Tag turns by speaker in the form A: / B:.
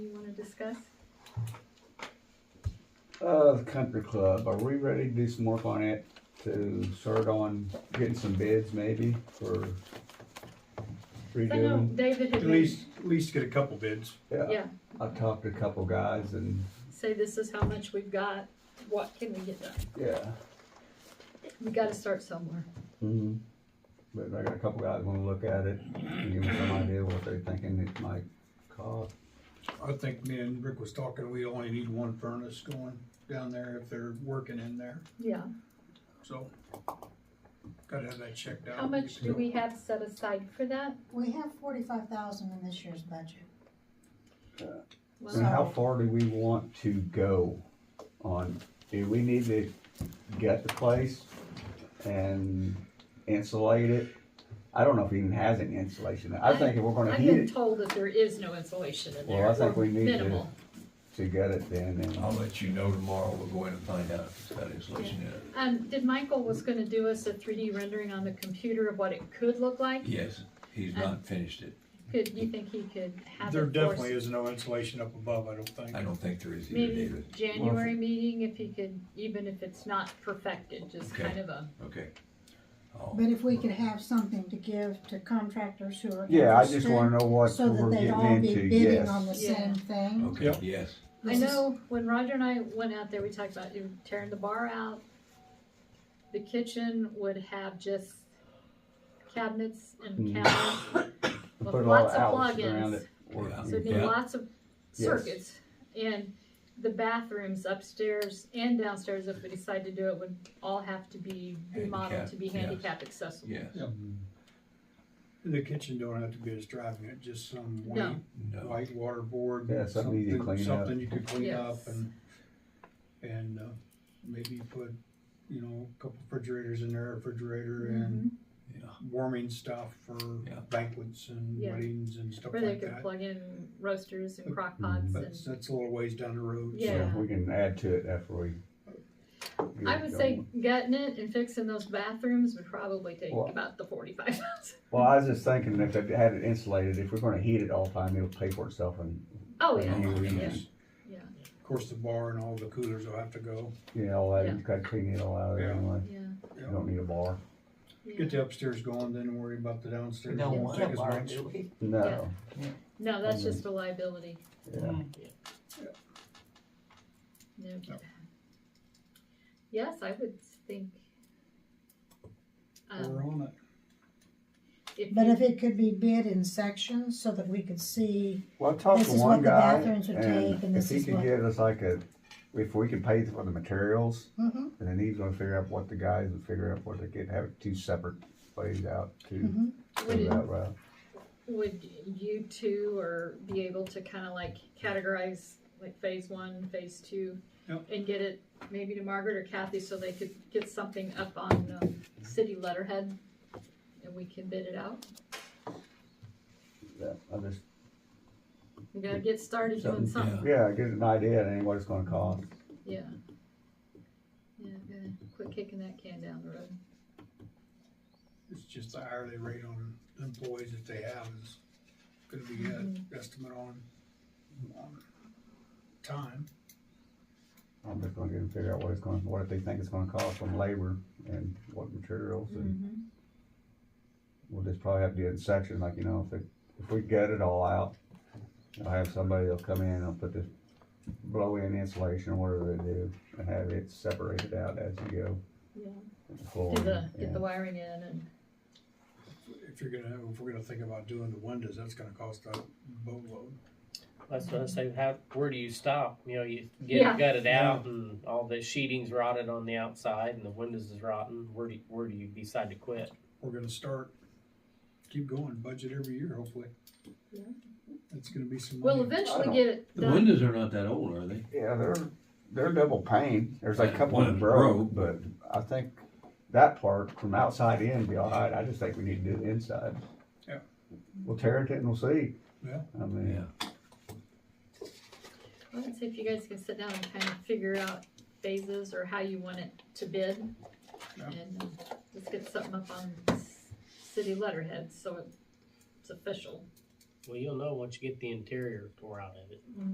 A: discuss?
B: Uh, the country club, are we ready to do some work on it to start on getting some bids maybe for
A: I know
B: redoing?
A: David had
C: At
A: been,
C: least, at least get a couple bids.
B: Yeah,
A: yeah,
B: I talked to a couple guys and,
A: say this is how much we've got, what can we get done?
B: yeah.
A: We gotta start somewhere.
B: Mhm. But I got a couple guys wanna look at it, and give me some idea what they're thinking it might cost.
C: I think me and Rick was talking, we only need one furnace going down there if they're working in there,
A: Yeah,
C: so. Gotta have that checked out.
A: how much do we have set aside for that?
D: We have forty-five thousand in this year's budget.
A: Well,
B: And how far do we want to go on, do we need to gut the place and insulate it? I don't know if it even has any insulation, I think if we're gonna
A: I've
B: heat
A: been
B: it
A: told that there is no insulation in
B: Well,
A: there,
B: I think
A: or
B: we need to-
A: minimal.
B: to gut it then,
E: I'll
B: and
E: let you know tomorrow, we'll go in and find out if it's got insulation in it.
A: Um, did Michael was gonna do us a three D rendering on the computer of what it could look like?
E: Yes, he's not finished it,
A: Could, you think he could have it
C: There
A: for us
C: definitely is no insulation up above, I don't think.
E: I don't think there is either,
A: Maybe
E: David,
A: January meeting, if he could, even if it's not perfected, just
E: Okay.
A: kind of a,
E: okay. Oh, I'll-
D: But if we could have something to give to contractors who are
B: yeah, I just
D: interested,
B: wanna know what
D: So that
B: we're
D: they'd
B: getting
D: all be
B: into,
D: bidding on the
B: yes.
A: Yeah.
D: same thing.
E: Okay,
C: Yep.
E: yes,
A: I
D: This is-
A: know when Roger and I went out there, we talked about you tearing the bar out. The kitchen would have just cabinets and
B: Mhm.
A: counters with
B: Put a lot
A: lots
B: of
A: of
B: outlets
A: plugins.
B: around it. or-
E: Yeah.
A: So it'd need
E: Yeah.
A: lots of
B: Yes.
A: circuits. And the bathrooms upstairs and downstairs, if we decide to do it, would all have to be remodeled to be
E: Handicap, yes.
A: handicap accessible.
E: yes,
C: The kitchen don't have to be as driving it, just some white,
A: No.
E: no,
C: white water board.
B: Yeah, something easy to clean up.
C: Something you could clean up
A: Yes.
C: and, and, uh, maybe put, you know, a couple refrigerators in there, refrigerator and
A: Mhm.
E: yeah,
C: warming stuff for
E: Yeah.
C: banquets and
A: Yeah.
C: weddings and stuff
A: Where they
C: like
A: could
C: that.
A: plug in roasters and crock pots
C: But
A: and.
C: that's- that's a little ways down the road. so-
A: Yeah.
B: So we can add to it after we. get
A: I
B: it
A: would say
B: going.
A: gutting it and fixing those bathrooms would probably take
B: Well-
A: about the forty-five thousand.
B: Well, I was just thinking if they had it insulated, if we're gonna heat it all the time, it'll pay for itself and,
A: Oh,
B: Yeah.
A: yeah,
C: And
B: Yeah.
C: just-
A: Yeah.
C: Of course, the bar and all the coolers will have to go.
B: you know, all that,
A: Yeah.
B: you gotta clean it all out of there
C: Yeah.
B: anyway.
A: yeah,
B: You don't need a bar.
A: yeah.
C: Get the upstairs going, then worry about the downstairs.
F: We don't
C: Won't
F: want
C: take
F: a
C: as
F: bar,
C: much.
F: do we?
B: No.
A: No, that's
B: Mhm.
A: just for liability.
B: Yeah.
A: No.
C: No.
A: Yes, I would think.
C: We're
A: Um,
C: on it.
A: if
D: But
A: you-
D: if it could be bid in sections so that we could see,
B: Well, I talked
D: This
B: to
D: is
B: one
D: what the
B: guy
D: bathrooms would take,
B: and
D: and
B: if
D: this
B: he
D: is
B: could
D: what-
B: get us like a, if we can pay for the materials,
D: mhm,
B: and then he's gonna figure out what the guys would figure out what they could have it two separate ways out to
D: mhm.
A: Would
B: go
A: it-
B: that route.
A: Would you two or be able to kind of like categorize like phase one, phase two?
C: Yep.
A: And get it maybe to Margaret or Kathy so they could get something up on um, city letterhead and we can bid it out?
B: Yeah, I just,
A: We gotta get started doing
B: Something,
A: something,
B: yeah, get an idea and what it's gonna cost.
A: yeah. Yeah, gotta quit kicking that can down the road.
C: It's just the hourly rate on employees that they have is gonna be an
A: Mm-hmm.
C: estimate on, on time.
B: I'm just gonna get them to figure out what it's gonna, what they think it's gonna cost on labor and what materials and
A: Mhm.
B: we'll just probably have to do it in sections, like, you know, if it, if we gut it all out, I'll have somebody that'll come in and I'll put this blow in insulation or whatever they do and have it separated out as you go.
A: Yeah,
B: with the floor
A: do the, get
B: and-
A: the wiring in and,
C: If you're gonna, if we're gonna think about doing the windows, that's gonna cost a boatload.
G: That's what I say. How where do you stop? You know, you get
A: Yeah.
G: it gutted out, and all the sheeting's rotted on the outside, and the windows is rotten. Where do you, where do you decide to quit?
C: We're gonna start, keep going, budget every year, hopefully.
A: Yeah.
C: It's gonna be some money.
A: we'll
B: I
A: eventually
B: don't-
A: get it
E: the
A: done.
E: windows are not that old, are they?
B: Yeah, they're, they're double pane. There's like a couple of them broke,
E: Broke.
B: but I think that part from outside in be all right. I just think we need to do the inside.
C: Yeah.
B: We'll tear it and we'll see.
C: Yeah.
B: I mean,
A: Let's see if you guys can sit down and kind of figure out phases or how you want it to bid.
C: Yeah.
A: And um, let's get something up on s- city letterhead, so it's official.
G: Well, you'll know once you get the interior tore out of it.